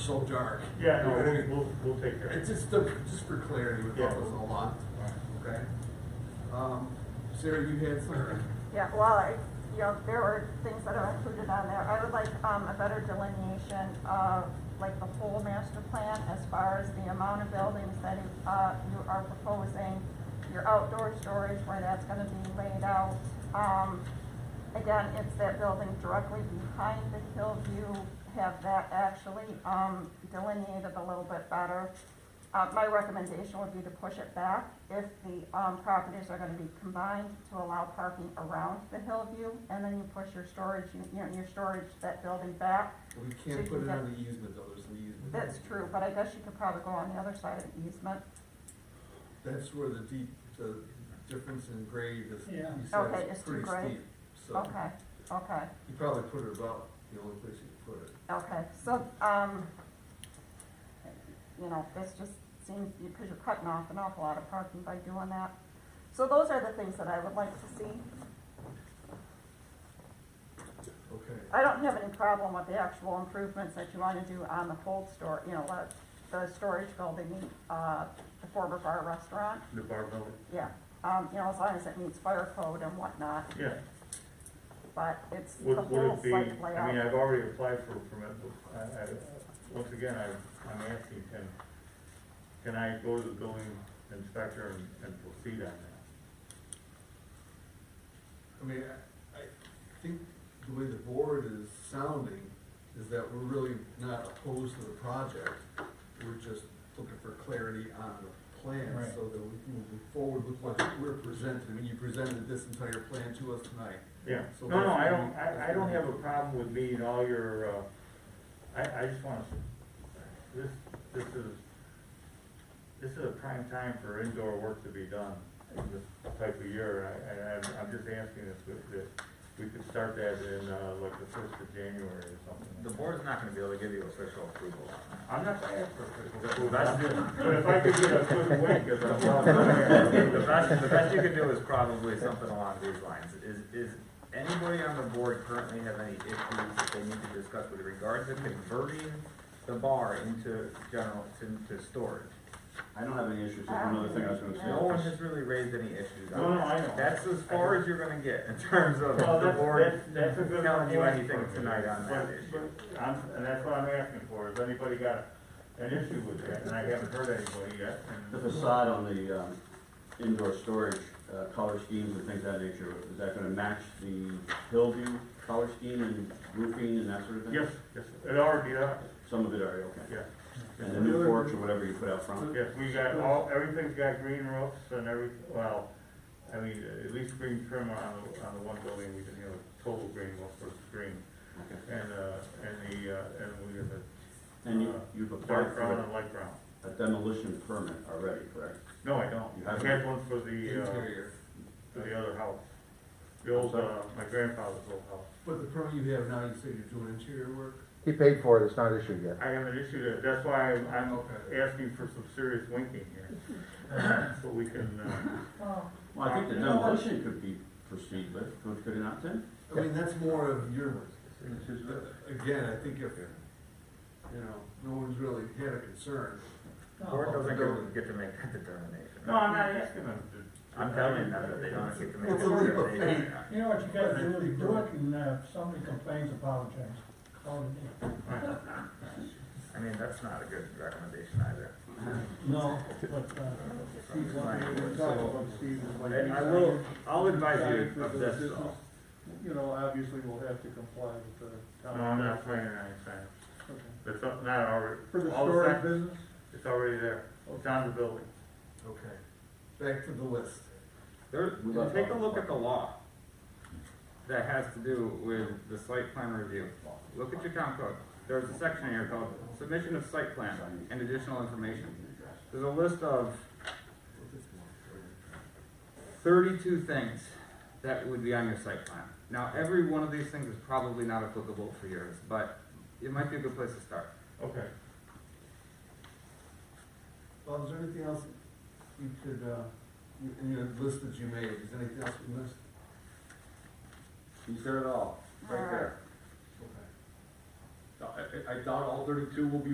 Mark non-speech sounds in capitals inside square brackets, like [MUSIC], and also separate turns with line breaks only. so dark.
Yeah, no, we'll, we'll take care of
It's
it.
just, uh, just for clarity would help us a lot, okay? Um, Sarah, you had something?
Yeah, well, I, you know, there were things that are included on there. I would like, um, a better delineation of, like, the whole master plan as far as the amount of buildings that, uh, you are proposing, your outdoor storage, where that's gonna be laid out. Um, again, it's that building directly behind the Hillview, have that actually, um, delineated a little bit better. Uh, my recommendation would be to push it back if the, um, properties are gonna be combined to allow parking around the Hillview, and then you push your storage, you, you know, your storage, that building back.
We can't put it on the easement though, there's an easement.
That's true, but I guess you could probably go on the other side of the easement.
That's where the deep, the difference in grade is, he
Yeah.
said
Okay,
it's
it's too
pretty
great.
steep, so.
Okay, okay,
You probably put it about the only place you could put it.
okay, so, um, you know, this just seems, because you're cutting off an awful lot of parking by doing that. So those are the things that I would like to see.
Okay,
I don't have any problem with the actual improvements that you wanna do on the cold store, you know, like the storage building, uh, the former bar restaurant,
The bar building?
yeah. Um, you know, as long as it meets fire code and whatnot,
Yeah,
but it's the
would, would
whole
it be, I
site
mean,
layout.
I've already applied for a permit, but I, I, once again, I, I'm asking, can, can I go to the building inspector and, and proceed on that?
I mean, I, I think the way the board is sounding is that we're really not opposed to the project. We're just looking for clarity on the plan
Right.
so that we can move forward with what we're presenting. I mean, you presented this entire plan to us tonight.
Yeah,
So
no, no, I
that's-
don't, I, I don't have a problem with meeting all your, uh, I, I just wanna, s- this, this is, this is a prime time for indoor work to be done in this type of year, I, I, I'm- I'm just asking if, we- if we could start that in, uh, like the first of January or something.
The board's not gonna be able to give you official approval
I'm
on that.
not saying for official
The- the
approval,
best-
but if I could get a good win, cause I'm not
[LAUGHS] [LAUGHS] The best, the best you can do is probably something along these lines, is, is anybody on the board currently have any issues that they need to discuss with regards to converting the bar into general, into storage?
I don't have any issues, that's another thing I was
No one
gonna say.
has really raised any issues
No,
on
no,
that.
I know.
That's as far as you're gonna get in terms of
Well,
the
that's,
board
that's, that's a good.
telling you
point.
anything tonight on that
But-
issue.
but I'm, and that's what I'm asking for, has anybody got an issue with that, and I haven't heard anybody yet,
The
and,
facade on the, um, indoor storage, uh, color schemes and things of that nature, is that gonna match the Hillview color scheme and roofing and that sort of thing?
yes, yes, it already, uh,
Some of it are, okay.
yeah.
And the new porch or whatever you put out front?
Yes, we got all, everything's got green roofs and every, well, I mean, at least green trim on the, on the one building, we can have a total green roof versus green.
Okay.
And, uh, and the, uh, and we have
And you,
Uh,
you've
a
applied
dark
for
brown and
a-
light brown.
a demolition permit already, correct?
No, I don't,
You
I
haven't?
have one for the, uh,
Interior.
for the other house. The old, uh, my grandfather's old house.
But the permit you have now, you say you're doing interior work?
He paid for it, it's not issued yet.
I have an issue that, that's why I'm, I'm
Okay.
asking for some serious winking [LAUGHS] here. So we can, uh,
Well, I think the demolition could be proceeded with, could- could it not, Tim?
I mean, that's more of your, again, I think if, you know, no one's really had a concern.
The board doesn't get to make that determination.
no, I'm not asking them to.
I'm telling you now that they don't get to make.
It's a leap of
that
faith.
determination.
You know what you gotta do, is do it, and uh, if somebody complains, apologize. Call it in.
I mean, that's not a good recommendation either.
No, but, uh, Steve's on it.
So-
And I will, I'll advise you of this though.
You know, obviously we'll have to comply with the
No,
town.
I'm not planning on anything.
Okay.
It's not not already.
For the
all
storage
fact-
business?
It's already there. It's on the building.
Okay. Back to the list.
There,
We love
take a
all
look
the
at the law that has to do with the site plan review. Look at your town code. There's a section in here called submission of site plan and additional information. There's a list of thirty-two things that would be on your site plan. Now, every one of these things is probably not applicable for yours, but it might be a good place to start.
Okay.
Bob, is there anything else you could, uh, you- in your list that you made, is there anything else we missed?
You said it all, right there.
Okay.
I, I doubt all thirty-two will be